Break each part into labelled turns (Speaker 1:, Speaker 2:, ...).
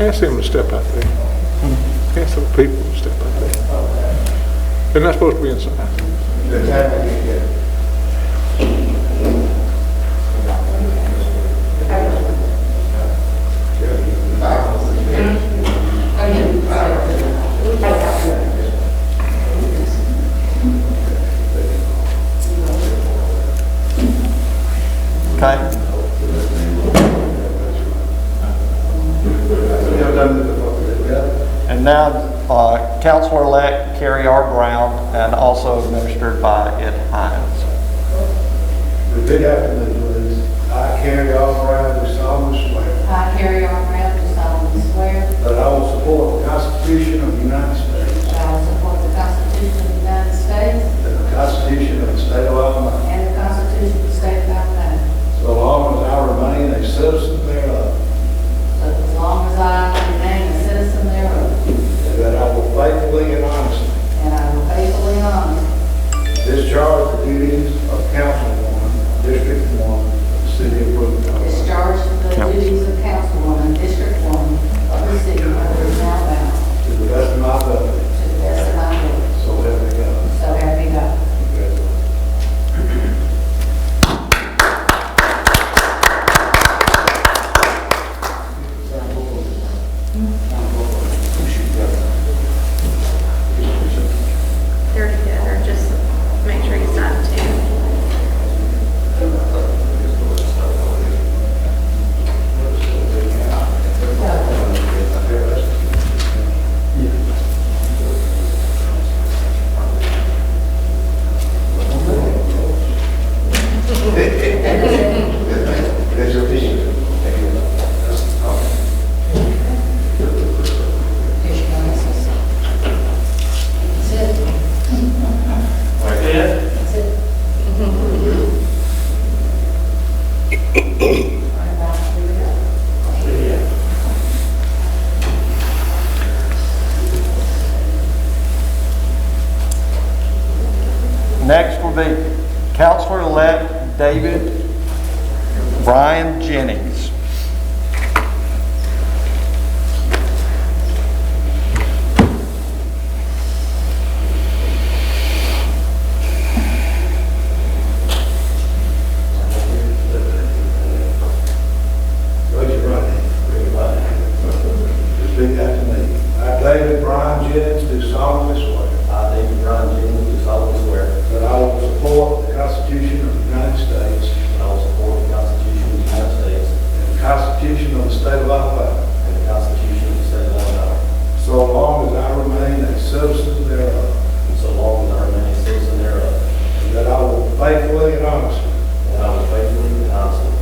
Speaker 1: Ask them to step out there. Ask those people to step out there. They're not supposed to be inside.
Speaker 2: Okay. And now, uh, Counselor-elect Carrie R. Brown, and also administered by Ed Hines.
Speaker 3: The big afternoon was, I carry all around the solemn swear
Speaker 4: I, Harry R. Brown, do solemnly swear
Speaker 3: that I will support the Constitution of the United States
Speaker 4: that I will support the Constitution of the United States
Speaker 3: and the Constitution of the State of Alabama,
Speaker 4: and the Constitution of the State of Alabama,
Speaker 3: so long as I remain a citizen thereof,
Speaker 4: so that as long as I remain a citizen thereof,
Speaker 3: and that I will faithfully and honestly
Speaker 4: and I will faithfully and honestly
Speaker 3: discharge the duties of councilwoman, District One, City of Brooklyn, Alabama,
Speaker 4: discharge the duties of councilwoman, District One, of the city of Brooklyn, Alabama,
Speaker 3: to the best of my ability,
Speaker 4: to the best of my ability.
Speaker 3: so help me God.
Speaker 4: So help me God.
Speaker 3: Congratulations.
Speaker 5: They're together, just make sure you sign two.
Speaker 4: Here's your bonuses. That's it. That's it. All right, Bob, here we go.
Speaker 2: Next will be Counselor-elect David Brian Jennings.
Speaker 3: Raise your right hand. Raise your right hand. Repeat after me. I, David Brian Jennings, do solemnly swear
Speaker 6: I, David Brown Jennings, do solemnly swear
Speaker 3: that I will support the Constitution of the United States
Speaker 6: that I will support the Constitution of the United States
Speaker 3: and the Constitution of the State of Alabama,
Speaker 6: and the Constitution of the State of Alabama,
Speaker 3: so long as I remain a citizen thereof,
Speaker 6: so long as I remain a citizen thereof,
Speaker 3: and that I will faithfully and honestly
Speaker 6: and I will faithfully and honestly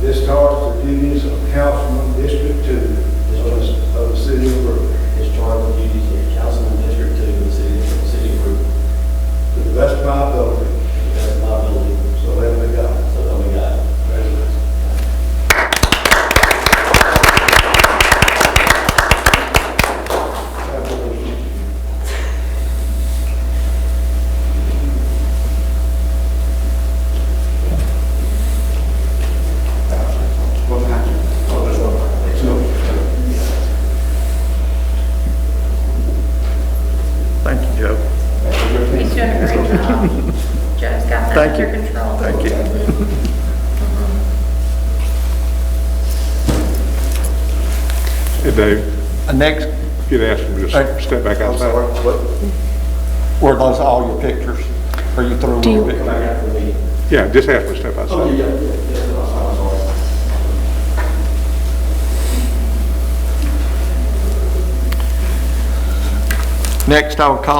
Speaker 3: discharge the duties of Councilman District Two of the- of the City of Brooklyn
Speaker 6: discharge the duties of Councilman District Two in the city, of- city of Brooklyn,
Speaker 3: to the best of my ability,
Speaker 6: to the best of my ability,
Speaker 3: so help me God.
Speaker 6: so help me God.
Speaker 3: Congratulations.
Speaker 2: Thank you, Joe.
Speaker 5: He's doing a great job. Joe's got that
Speaker 2: Thank
Speaker 5: under
Speaker 2: you.
Speaker 5: control.
Speaker 2: Thank you.
Speaker 1: Hey, Dave,
Speaker 2: Uh, Next,
Speaker 1: if you'd ask them to
Speaker 2: Hey.
Speaker 1: just step back outside.
Speaker 2: were those all your pictures? Are you through with your pictures?
Speaker 1: Yeah, just ask them to step outside.
Speaker 2: Next, I will call